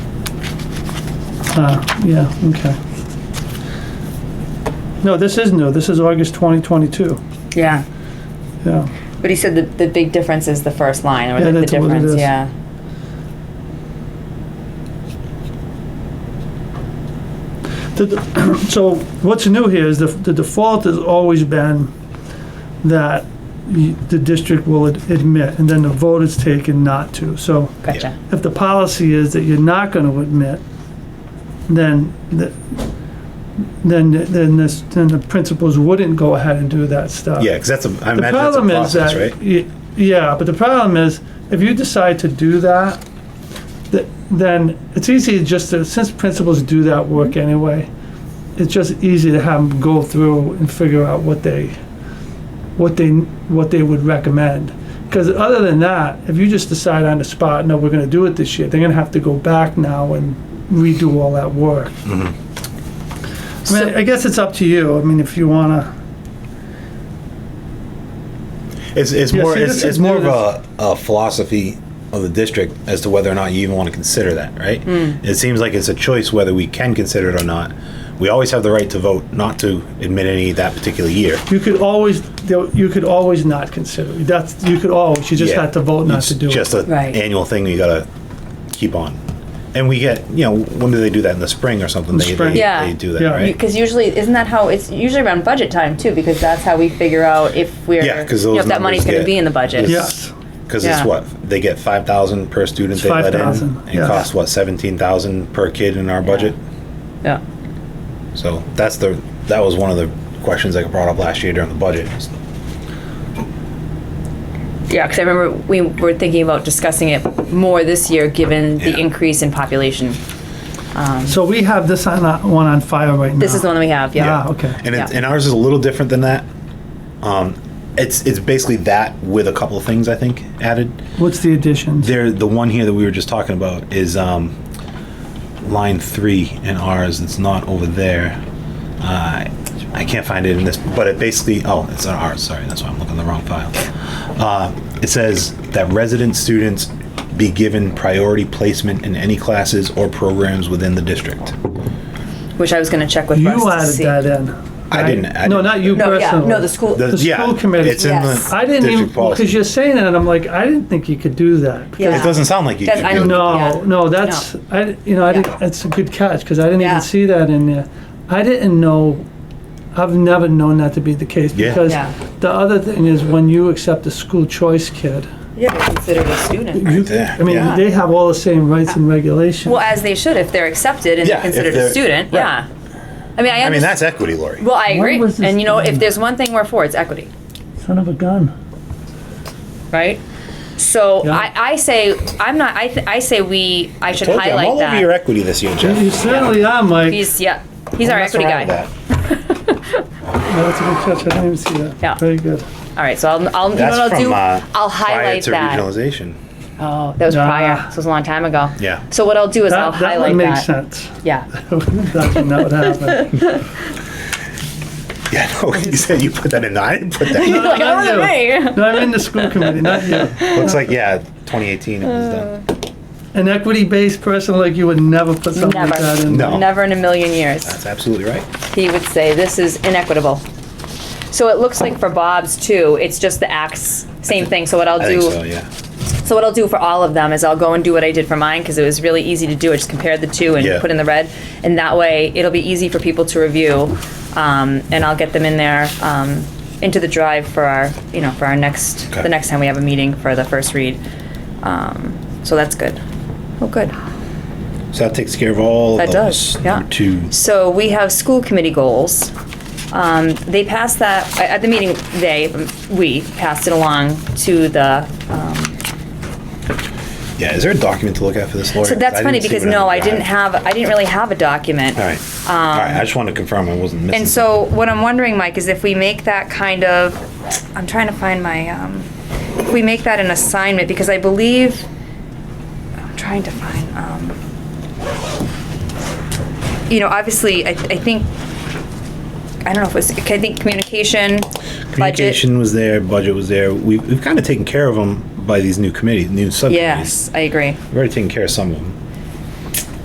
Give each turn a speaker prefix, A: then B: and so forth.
A: Ah, yeah, okay. No, this is new, this is August 2022,
B: Yeah.
A: yeah.
B: But he said the, the big difference is the first line, or
A: Yeah,
B: the, the
A: that's what it
B: difference,
A: is.
B: yeah.
A: The- the- So what's new here is the the default has always been that y- the district will ad- admit, and then the vote is taken not to. So
B: Gotcha.
A: if the policy is that you're not going to admit, then, the- then, then this, then the principals wouldn't go ahead and do that stuff.
C: Yeah, because that's a, I
A: The
C: imagine that's a
A: problem is
C: process,
A: that,
C: right?
A: y- yeah, but the problem is, if you decide to do that, th- then it's easy just to, since principals do that work anyway, it's just easy to have them go through and figure out what they, what they, what they would recommend. Because other than that, if you just decide on the spot, no, we're gonna do it this year, they're gonna have to go back now and redo all that work.
C: Mm-hmm.
A: I mean, I guess it's up to you, I mean, if you wanna.
C: It's, it's
A: Yeah,
C: more,
A: see,
C: it's,
A: this is
C: it's more of
A: new,
C: a, a philosophy of the district as to whether or not you even want to consider that, right?
B: Hmm.
C: It seems like it's a choice whether we can consider it or not. We always have the right to vote not to admit any that particular year.
A: You could always, you could always not consider, that's, you could always, you just
C: Yeah.
A: had to vote not
C: It's
A: to do
C: Just
A: it.
C: an
B: Right.
C: annual thing you gotta keep on. And we get, you know, when do they do that? In the spring or something? They,
A: spring.
C: they-
B: Yeah.
C: they do that,
A: Yeah.
C: right?
B: Because usually, isn't that how, it's usually around budget time too, because that's how we figure out if we're,
C: Yeah, 'cause
B: you know,
C: those
B: if that money's gonna
C: numbers get-
B: be in the budget.
C: Yeah.
A: Yes,
C: Because
B: Yeah.
C: it's what they get five thousand per student
A: It's
C: they let in,
A: 5,000,
C: and
A: yeah.
C: costs what seventeen thousand per kid in our budget.
B: Yeah.
C: So that's the that was one of the questions I brought up last year during the budget.
B: Yeah, because I remember we were thinking about discussing it more this year, given the
C: Yeah.
B: increase in population.
A: so we have this on, uh, one on fire right now.
B: This is the one that we have,
A: Ah,
B: yeah.
A: okay.
C: And it,
B: Yeah.
C: and ours is a little different than that. Um, it's it's basically that with a couple of things I think added.
A: What's the addition?
C: There, the one here that we were just talking about is um, line three in ours. It's not over there. Uh, I can't find it in this, but it basically. Oh, it's on ours. Sorry, that's why I'm looking in the wrong file. Uh, it says that resident students be given priority placement in any classes or programs within the district.
B: Which I was gonna check with Russ
A: You
B: to
A: added
B: see.
A: that in.
C: I
A: right?
C: didn't- I
A: No,
C: didn't-
A: not you
B: No,
A: personally.
B: yeah, no, the school,
C: The,
A: school committee.
C: It's in
B: Yes.
C: the
A: I didn't
C: district
A: even,
C: policy.
A: because you're saying that, and I'm like, I didn't think you could do that.
B: Yeah.
C: It doesn't sound like you.
B: That's-
C: could
B: I
C: do
B: don't-
C: it.
A: No,
B: Yeah.
A: no, that's, I, you know, I
B: Yeah.
A: didn't, that's a good catch, because I didn't
B: Yeah.
A: even see that in there. I didn't know, I've never known that to be the case,
C: Yeah.
A: because
B: Yeah.
A: the other thing is, when you accept a school choice kid,
B: yeah, they're considered a student.
A: you,
C: there,
A: I mean,
C: yeah.
A: they have all the same rights and regulations.
B: Well, as they should, if they're accepted and
C: Yeah,
B: they're
C: if
B: considered a
C: they're-
B: student,
C: right.
B: yeah. I mean, I
C: I mean,
B: understand,
C: that's equity, Lori.
B: well, I agree,
A: was this
B: and you know, if
A: done?
B: there's one thing we're for, it's equity.
A: Son of a gun.
B: right? So
A: Yeah.
B: I, I say I'm not. I, th- I say we. I should
C: Told you, I'm
B: highlight
C: all
B: that.
C: over your equity this year, Jeff.
A: You certainly are, Mike.
B: he's yeah. He's our
C: Mess
B: equity
C: around
B: guy.
C: with that.
A: Yeah, That's a good catch, I didn't even see that.
B: Yeah.
A: Very good.
B: All right. So I'll. I'll you know
C: That's
B: what I'll
C: from,
B: do?
C: uh,
B: I'll
C: prior
B: highlight
C: to
B: that.
C: regionalization.
B: Oh, that was
A: Nah.
B: prior. So it was a long time ago.
C: Yeah.
B: So what I'll do is I'll
A: That, that
B: highlight
A: would make
B: that.
A: sense.
B: Yeah.
A: That's when that would happen.
C: Yeah, no, you said you put that in. I didn't put that. in.
B: like,
A: not
B: "Oh,
A: you.
B: me."
A: No, I'm in the school committee, not you.
C: Looks like yeah, 2018 it was done.
B: Uh,
A: An equity-based person like you would never put something like
B: Never.
A: that in.
C: No.
B: Never in a million years.
C: That's absolutely right.
B: he would say this is inequitable. So it looks like for Bob's too, it's just the acts, same thing. So what I'll
C: I
B: do,
C: think so. Yeah,
B: So what I'll do for all of them is I'll go and do what I did for mine because it was really easy to do. I just compared the two and
C: Yeah.
B: put in the red, and that way it'll be easy for people to review, um, and I'll get them in there um, into the drive for our you know for our next
C: Okay.
B: the next time we have a meeting for the first read. Um, so that's good. Oh, good.
C: so that takes care of all.
B: That
C: those
B: does, yeah.
C: Two.
B: So we have school committee goals. Um, They passed that, at the meeting, they, we passed it along to the um,
C: Yeah, is there a document to look at for this, Lori?
B: So that's
C: I
B: funny
C: didn't see
B: because
C: what
B: no,
C: I-
B: I didn't have, I didn't really have a document.
C: All right. all right. I just wanted to confirm I wasn't missing.
B: And so what I'm wondering, Mike, is if we make that kind of, I'm trying to find my, um, if we make that an assignment, because I believe, I'm trying to find, um, you know, obviously, I, I think, I don't know if it was, I think communication, budget.
C: communication was there, budget was there. We've, we've kind of taken care of them by these new committees, new subcommittees.
B: Yes, I agree.
C: We've already taken care of some of them.